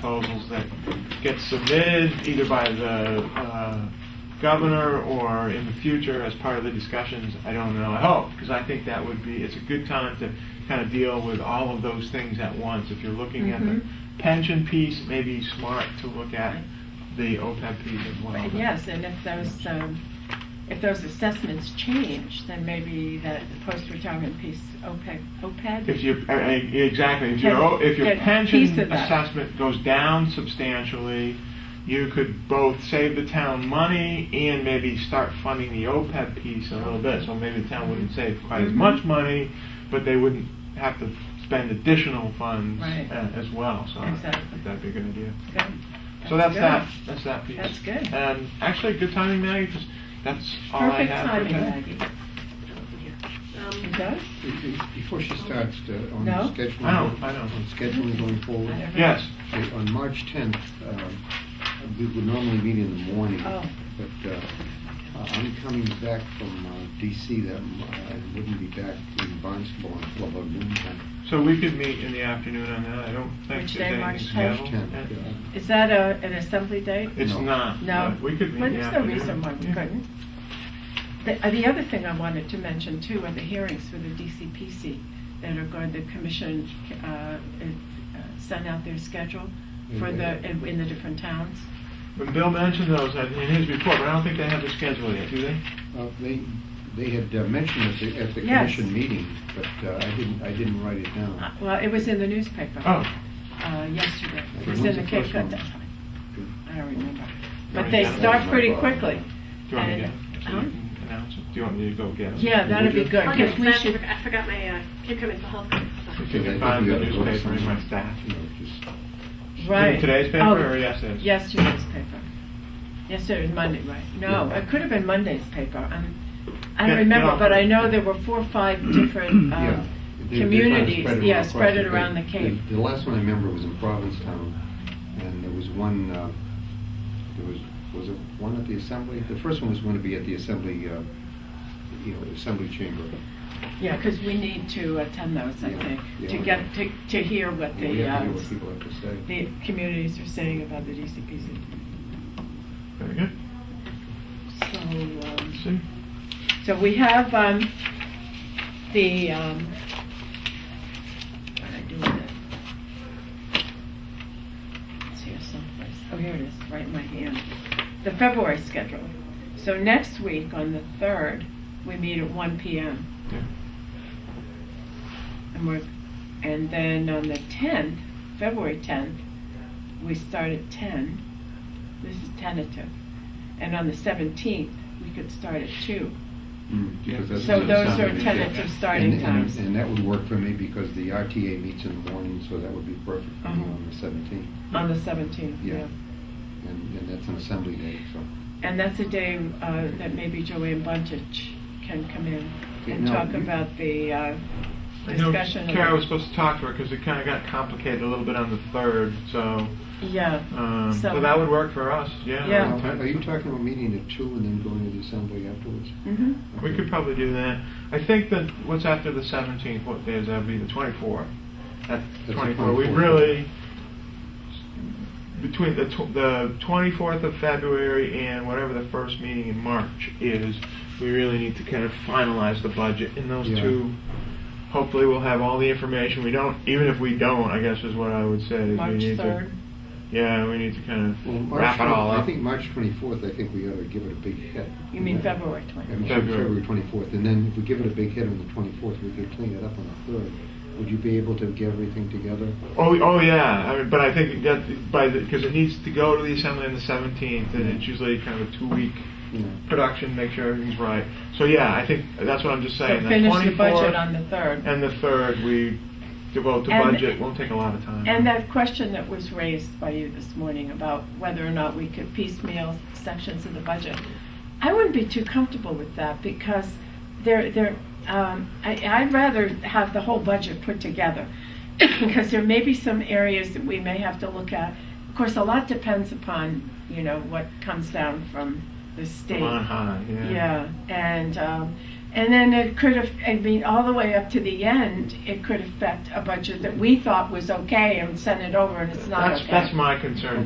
proposals that get submitted either by the uh, governor or in the future as part of the discussions, I don't know, I hope, because I think that would be, it's a good time to kind of deal with all of those things at once. If you're looking at the Mhm. pension piece, maybe smart to look at the OPEB piece as well. Right, Yes, and if those, um, if those assessments change, then maybe that post-retirement piece, OPEB, If OPEB? your, uh, uh, exactly, if your, if your Get- get piece pension of that. assessment goes down substantially, you could both save the town money and maybe start funding the OPEB piece a little bit. So maybe the town wouldn't save quite as Mhm. much money, but they wouldn't have to spend additional funds Right. uh, as well. So I Exactly. think that'd be a good idea. Good. So that's good. that, that's that piece. That's good. And actually, good timing, Maggie, because that's all I Perfect have. for timing, today. Maggie. It Um, does? Be- be- Before she starts uh, on No? scheduling. I know, I know. On scheduling going I forward. don't know. Yes, So On March 10th, um, we would normally meet in the morning. Oh. But uh, uh, I'm coming back from uh, DC that, m- I wouldn't be back in Barnstable until about noon time. so we could meet in the afternoon on that. I don't think Which there's day, anything March scheduled. 10th, Uh, yeah. Is that a, an assembly date? It's No. not. No? but Uh, We could meet. Well, in the There's no afternoon. reason why we Yeah. couldn't. The, uh, the other thing I wanted to mention too are the hearings for the DCPC that are going, the commission, uh, uh, sent out their schedule for Mm-hmm. the, in in the different towns. But Bill mentioned those in his report, but I don't think they have the schedule yet, do they? Uh, They, they had uh, mentioned at the, at the Yes. commission meeting, but uh, I didn't, I didn't write it Uh, down. Well, it was in the newspaper. Oh, uh, yesterday. It Okay, was in when's the the Cape first Cod. one? I don't remember. Yeah, Oh, But they yeah. start pretty quickly. do you want me to get it? So And- you huh? can announce it? Do you want me to go get it? Uh-huh. Yeah, that'd be Would you? good, I'll because get we that. Oh, I should, forgot- I forgot my, uh, Cape Cod Mental Health If Stuff. you I can think find we the ought to go newspaper in my somewhere, staff. you know, just- right. Today's paper Oh, or yesterday's? Yesterday's paper. Yesterday was Monday, right? No, Yeah. it could have been Monday's paper. Um, I Yeah, don't remember, yeah. but I know there were four or five different, Yeah. um, They- they kinda communities, spread it yeah, across spread it the- around the the- Cape. The last one I remember was in Provincetown, and there was one, uh, there was, was it one at the Assembly? The first one was going to be at the Assembly, uh, you know, Assembly Chamber. Yeah, because we need to attend those, I Yeah, think, yeah. to get, to, to hear what We the, have uh, to hear what people have to say. the communities are saying about the DCPC. Very good. So, um, See? So we have um, the, um, what did I do with it? It's here someplace. Oh, here it is, right in my hand. The February schedule. So next week, on the 3rd, we meet at 1 PM. Yeah. And we're, and then on the 10th, February 10th, we start at 10. This is tentative. And on the 17th, we could start at 2. Mm, because that's So the those Assembly are meeting. tentative And- starting and- times. And that would work for me because the RTA meets in the morning, so that would be perfect for me Uh-huh. on the 17th. On the 17th, Yeah. yeah. And and that's an Assembly day, so. And that's a day uh, that maybe Joanne Buntich can come in Okay, and now talk you- about the uh, I know discussion. of- Kara was supposed to talk to her because it kind of got complicated a little bit on the third, so, Yeah. um, So- so that would work for us, yeah. Yeah. Now, Are are you talking about meeting at two and then going to the Assembly afterwards? Mhm. We could probably do that. I think that what's after the 17th, what day is that? Would be the 24th. That's the 24. We 24th. really between the tw- the 24th of February and whatever the first meeting in March is, we really need to kind of finalize the budget in those Yeah. two. Hopefully, we'll have all the information. We don't, even if we don't, I guess is what I would say. is we March need 3rd. To, yeah, we need to kind of Well, March wrap it all 20 up. I think March 24th, I think we ought to give it a big hit. You mean February I 20th? mean, sorry, February. February 24th, and then if we give it a big hit on the 24th, we could clean it up on the 3rd. Would you be able to get everything together? Oh, oh yeah. I mean, but I think that by because it needs to go to the assembly on the 17th, and it's usually kind of a two-week You know, production, make sure everything's right. So yeah, I think that's what I'm just So saying. finish the 24th budget on the 3rd. and the third, we devote to And- budget. Won't take a lot of time. And that question that was raised by you this morning about whether or not we could piecemeal sections of the budget. I wouldn't be too comfortable with that because they're, they're, um, I, I'd rather have the whole budget put together. Because there may be some areas that we may have to look at. Of course, a lot depends upon, you know, what comes down from the state. Come on high. Yeah. Yeah, and um, And then it could have, I mean, all the way up to the end, it could affect a budget that we thought was okay and sent it over and it's not That's, okay. that's my concern.